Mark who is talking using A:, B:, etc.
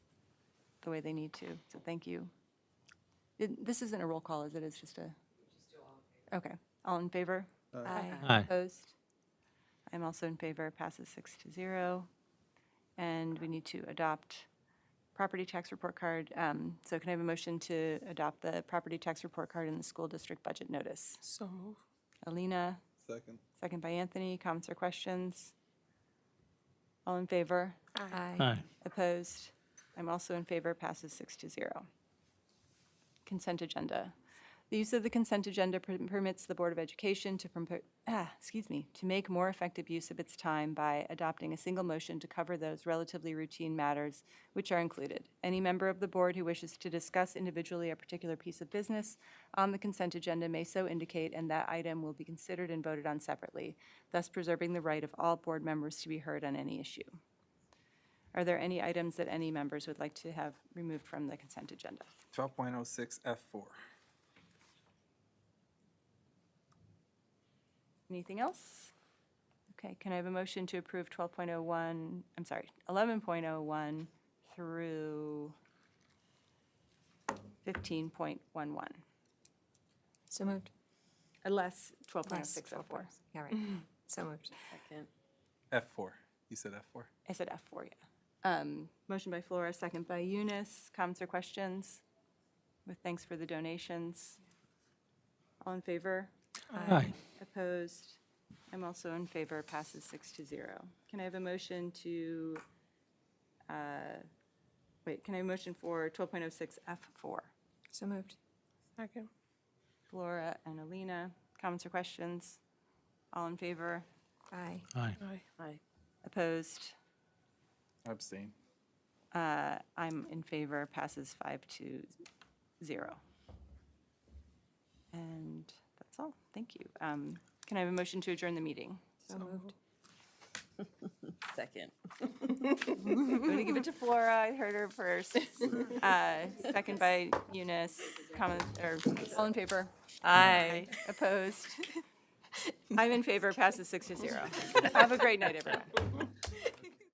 A: the way they need to. So thank you. It- This isn't a roll call, is it? It's just a? Okay. All in favor?
B: Aye.
A: Opposed? I'm also in favor. Passes six to zero. And we need to adopt property tax report card. Um, So can I have a motion to adopt the property tax report card in the school district budget notice?
C: So move.
A: Alina,
B: Second.
A: second by Anthony. Comments or questions? All in favor?
B: Aye.
A: Opposed? I'm also in favor, passes six to zero. Consent agenda. The use of the consent agenda per- permits the Board of Education to, propo- ah, excuse me, to make more effective use of its time by adopting a single motion to cover those relatively routine matters which are included. Any member of the board who wishes to discuss individually a particular piece of business on the consent agenda may so indicate, and that item will be considered and voted on separately, thus preserving the right of all board members to be heard on any issue. Are there any items that any members would like to have removed from the consent agenda?
D: 12.06 F4.
A: Anything else? Okay, can I have a motion to approve 12.01, I'm sorry, 11.01 through 15.11?
C: So moved.
A: Unless
C: Last
A: 12.0604.
C: All right. Mm-hmm. So moved.
D: F4. You said F4.
A: I said F4, yeah. Um, Motion by Flora, second by Eunice. Comments or questions? With thanks for the donations. All in favor?
B: Aye.
A: Opposed? I'm also in favor, passes six to zero. Can I have a motion to, uh, wait, can I have a motion for 12.06 F4?
C: So moved. Second.
A: Flora and Alina, comments or questions? All in favor?
C: Aye.
B: Aye.
A: Opposed?
D: Abstain.
A: Uh, I'm in favor, passes five to zero. And that's all, thank you. Um, Can I have a motion to adjourn the meeting?
C: So moved.
E: Second.
A: I'm going to give it to Flora, I heard her first. Uh, Second by Eunice, comment, or all in favor? Aye. Opposed? I'm in favor, passes six to zero. Have a great night, everyone.